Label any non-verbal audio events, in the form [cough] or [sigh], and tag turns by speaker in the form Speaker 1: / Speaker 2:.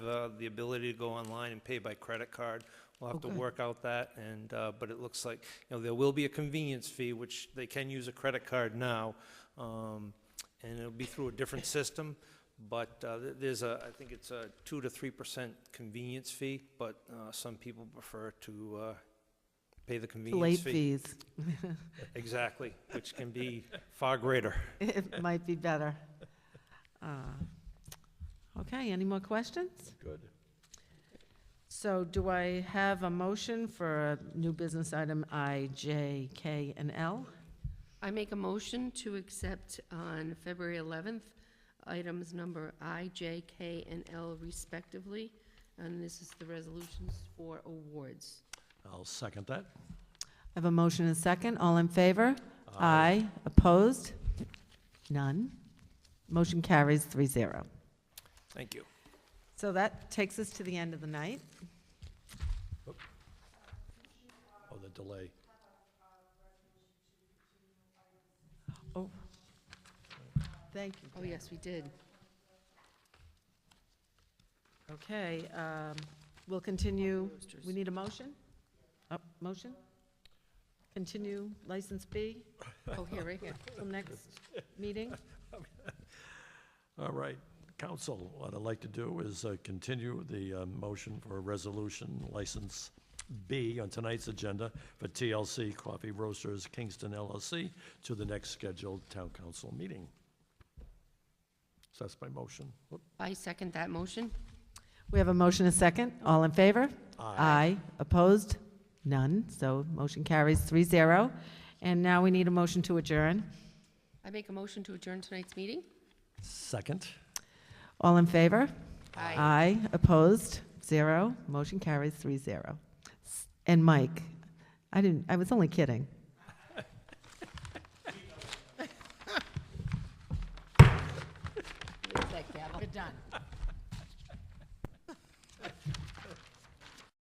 Speaker 1: uh, the ability to go online and pay by credit card. We'll have to
Speaker 2: Okay.
Speaker 1: work out that, and, uh, but it looks like, you know, there will be a convenience fee, which they can use a credit card now, um, and it'll be through a different system, but uh, th- there's a, I think it's a two to three percent convenience fee, but uh, some people prefer to uh, pay the
Speaker 2: Late
Speaker 1: convenience fee.
Speaker 2: fees. [laughs]
Speaker 1: Exactly, which can be far greater.
Speaker 2: It might be better. Uh, Okay, any more questions?
Speaker 3: Good.
Speaker 2: So do I have a motion for a new business item I, J, K, and L?
Speaker 4: I make a motion to accept on February 11th, items number I, J, K, and L respectively. And this is the resolutions for awards.
Speaker 3: I'll second that.
Speaker 2: I have a motion and a second. All in favor? Aye. Opposed? None. Motion carries three zero.
Speaker 1: Thank you.
Speaker 2: So that takes us to the end of the night.
Speaker 3: Oh, the delay.
Speaker 2: Oh, thank you.
Speaker 4: Oh,
Speaker 2: Pam.
Speaker 4: yes, we did.
Speaker 2: Okay, um, we'll continue. We need a motion? Oh, motion? Continue license B
Speaker 3: [laughs]
Speaker 4: Oh, here, right
Speaker 2: [laughs]
Speaker 4: here.
Speaker 2: till next meeting?
Speaker 3: All right, council, what I'd like to do is uh, continue the uh, motion for a resolution license B on tonight's agenda for TLC Coffee Roasters Kingston LLC to the next scheduled town council meeting. So that's my motion. Whoop.
Speaker 4: I second that motion.
Speaker 2: We have a motion, a second. All in favor?
Speaker 3: Aye.
Speaker 2: Opposed? None. So motion carries three zero. And now we need a motion to adjourn.
Speaker 4: I make a motion to adjourn tonight's meeting.
Speaker 3: Second.
Speaker 2: All in favor?
Speaker 4: Aye.
Speaker 2: Opposed? Zero. Motion carries three zero. S- And Mike, I didn't, I was only kidding.
Speaker 4: Where's that gavel?
Speaker 2: We're done.